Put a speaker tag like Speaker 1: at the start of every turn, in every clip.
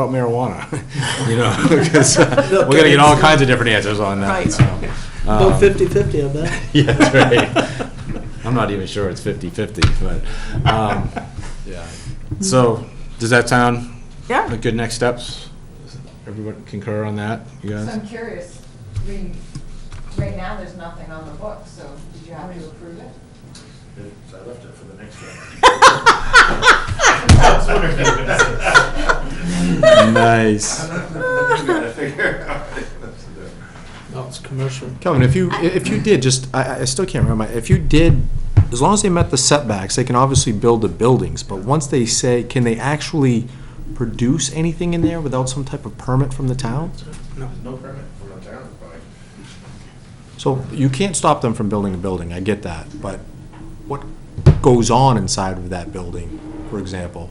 Speaker 1: about marijuana, you know, because uh, we're gonna get all kinds of different answers on that.
Speaker 2: Right.
Speaker 1: so, um,
Speaker 3: About fifty-fifty, I bet.
Speaker 1: Yeah, that's right. I'm not even sure it's 50/50, but, um, yeah. So, does that sound
Speaker 2: Yeah.
Speaker 1: like good next steps? Everyone concur on that, you
Speaker 4: So
Speaker 1: guys?
Speaker 4: I'm curious, I mean, right now, there's nothing on the book, so did you have to approve it?
Speaker 5: So I left it for the next one.
Speaker 1: Nice.
Speaker 5: I'm gonna figure out.
Speaker 3: No, it's commercial.
Speaker 6: Kelvin, if you, if you did, just, I, I still can't remember, if you did, as long as they met the setbacks, they can obviously build the buildings, but once they say, can they actually produce anything in there without some type of permit from the town?
Speaker 5: There's no permit from the town, probably.
Speaker 6: So you can't stop them from building a building, I get that, but what goes on inside of that building, for example?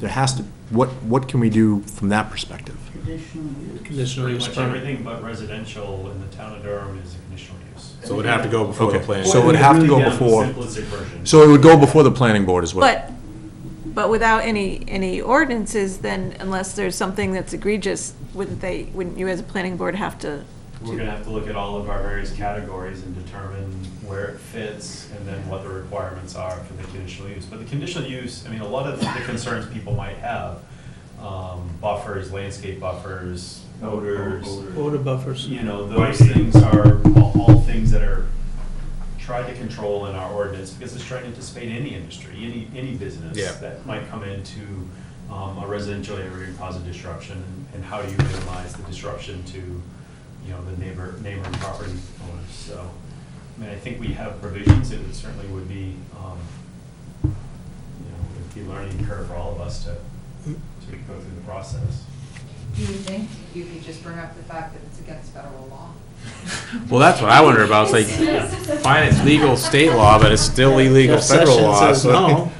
Speaker 6: There has to, what, what can we do from that perspective?
Speaker 3: Conditional
Speaker 7: Pretty
Speaker 3: use
Speaker 7: much
Speaker 3: permit.
Speaker 7: everything but residential in the town of Durham is a conditional use.
Speaker 1: So it would have to go before the
Speaker 6: Okay,
Speaker 1: plan.
Speaker 6: so it would have to go
Speaker 7: Down to the
Speaker 6: before,
Speaker 7: Simplistic version.
Speaker 6: so it would go before the planning board as well.
Speaker 2: But, but without any, any ordinances, then unless there's something that's egregious, wouldn't they, wouldn't you as a planning board have to?
Speaker 7: We're gonna have to look at all of our various categories and determine where it fits and then what the requirements are for the conditional use. But the conditional use, I mean, a lot of the concerns people might have, um, buffers, landscape buffers, odors.
Speaker 3: Order buffers.
Speaker 7: You know, those things are all, all things that are tried to control in our ordinance because it's trying to anticipate any industry, any, any business
Speaker 1: Yeah.
Speaker 7: that might come into um, a residential area and cause a disruption. And how do you minimize the disruption to, you know, the neighbor, neighboring property owners? So, I mean, I think we have provisions. It would certainly would be, um, you know, it'd be a learning curve for all of us to, to go through the process.
Speaker 4: Do you think you could just bring up the fact that it's against federal law?
Speaker 1: Well, that's what I wonder about, it's like, fine, it's legal state law, but it's still illegal
Speaker 3: Jeff
Speaker 1: federal
Speaker 3: Sessions
Speaker 1: law.
Speaker 3: says
Speaker 1: so-
Speaker 3: no.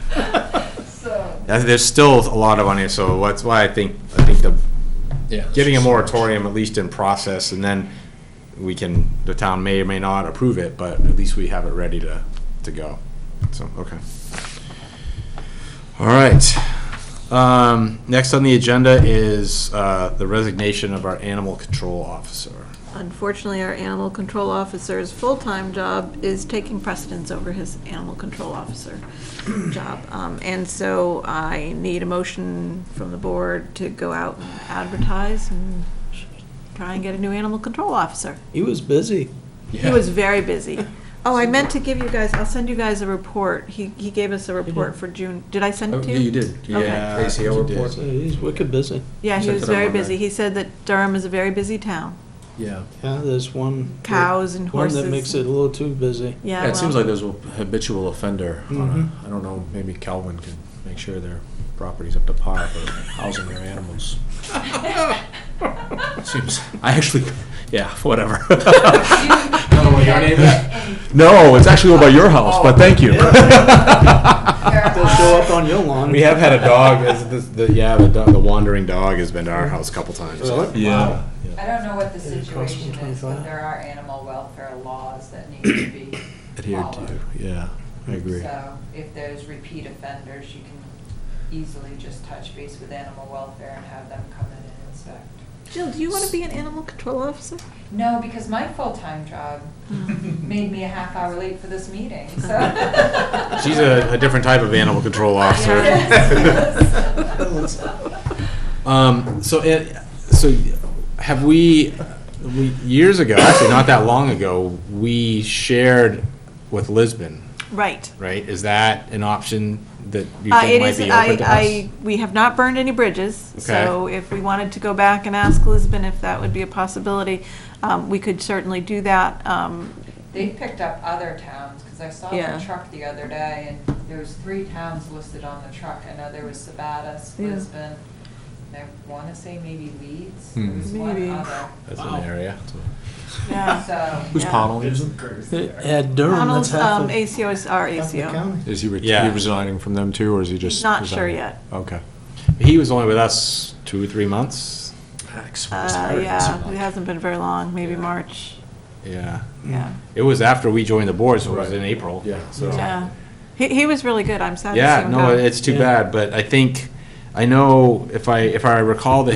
Speaker 4: So.
Speaker 1: I think There's still a lot of unanswered, so that's why I think, I think the, getting a moratorium, at least in process, and then we can, the town may or may not approve it, but at least we have it ready to, to go. So, okay. All right. Um, next on the agenda is, uh, the resignation of our animal control officer.
Speaker 2: Unfortunately, our animal control officer's full-time job is taking precedence over his animal control officer job. Um, And so I need a motion from the board to go out and advertise and try and get a new animal control officer.
Speaker 3: He was busy.
Speaker 2: He was very busy. Oh, I meant to give you guys, I'll send you guys a report. He, he gave us a report for June. Did I send it to you? Okay.
Speaker 1: Yeah. ACO report.
Speaker 3: So He's wicked busy.
Speaker 2: Yeah, he
Speaker 1: Sent
Speaker 2: was
Speaker 1: it on
Speaker 2: very
Speaker 1: Monday.
Speaker 2: busy. He said that Durham is a very busy town.
Speaker 6: Yeah.
Speaker 3: Yeah, there's one.
Speaker 2: Cows and horses.
Speaker 3: One that makes it a little too busy.
Speaker 2: Yeah.
Speaker 6: Yeah, it seems
Speaker 2: well,
Speaker 6: like there's a habitual offender. on a-
Speaker 3: Mhm.
Speaker 6: I don't know, maybe Calvin can make sure their property's up to par for housing their animals. Seems, I actually, yeah, whatever. No, it's actually over by your house, but thank you.
Speaker 3: They'll show up on your lawn.
Speaker 1: We have had a dog, as the, the- yeah, the dog- the wandering dog has been to our house a couple times.
Speaker 6: Yeah.
Speaker 4: I don't know what the
Speaker 3: It costs them
Speaker 4: situation is,
Speaker 3: 25.
Speaker 4: but there are animal welfare laws that need to be
Speaker 6: Adhered to,
Speaker 4: followed.
Speaker 6: yeah, I agree.
Speaker 4: So if there's repeat offenders, you can easily just touch base with animal welfare and have them come in and inspect.
Speaker 2: Jill, do you want to be an animal control officer?
Speaker 4: No, because my full-time job
Speaker 2: Mm.
Speaker 4: made me a half hour late for this meeting, so.
Speaker 1: She's a, a different type of animal control officer.
Speaker 4: Yes, yes.
Speaker 1: Um, so, it, so have we, we, years ago, actually not that long ago, we shared with Lisbon,
Speaker 2: Right.
Speaker 1: right? Is that an option that you
Speaker 2: Uh,
Speaker 1: think
Speaker 2: it
Speaker 1: might
Speaker 2: is,
Speaker 1: be
Speaker 2: I,
Speaker 1: open to us?
Speaker 2: I, we have not burned any bridges, so if we wanted to go back and ask Lisbon if that would be a possibility, um, we could certainly do that. Um,
Speaker 4: They picked up other towns, because I saw
Speaker 2: Yeah.
Speaker 4: the truck the other day, and there was three towns listed on the truck. I know there was Sabatis,
Speaker 2: Yeah.
Speaker 4: Lisbon, and I want to say maybe Leeds, there was
Speaker 2: Mhm.
Speaker 4: one
Speaker 2: Maybe.
Speaker 4: other.
Speaker 1: Hmm. That's an area.
Speaker 2: yeah.
Speaker 4: So,
Speaker 6: Who's
Speaker 2: Yeah.
Speaker 6: Pownell
Speaker 7: It's
Speaker 6: using?
Speaker 3: At Durham, that's
Speaker 2: Donald's,
Speaker 3: half
Speaker 2: um,
Speaker 3: of.
Speaker 2: ACO is our
Speaker 3: half the
Speaker 2: ACO.
Speaker 3: county.
Speaker 6: Is he re-
Speaker 1: Yeah.
Speaker 6: he resigning from them too, or is he just?
Speaker 2: Not sure
Speaker 6: resigning?
Speaker 2: yet.
Speaker 6: Okay.
Speaker 1: He was only with us two or three months.
Speaker 2: Uh, yeah, it hasn't been very long, maybe March,
Speaker 1: Yeah.
Speaker 2: yeah.
Speaker 1: It was after we joined the board, so it was in April.
Speaker 6: Yeah.
Speaker 1: So.
Speaker 2: Yeah. He, he was really good, I'm sad to see
Speaker 1: Yeah,
Speaker 2: him go.
Speaker 1: no, it's too
Speaker 3: Yeah.
Speaker 1: bad, but I think, I know if I, if I recall the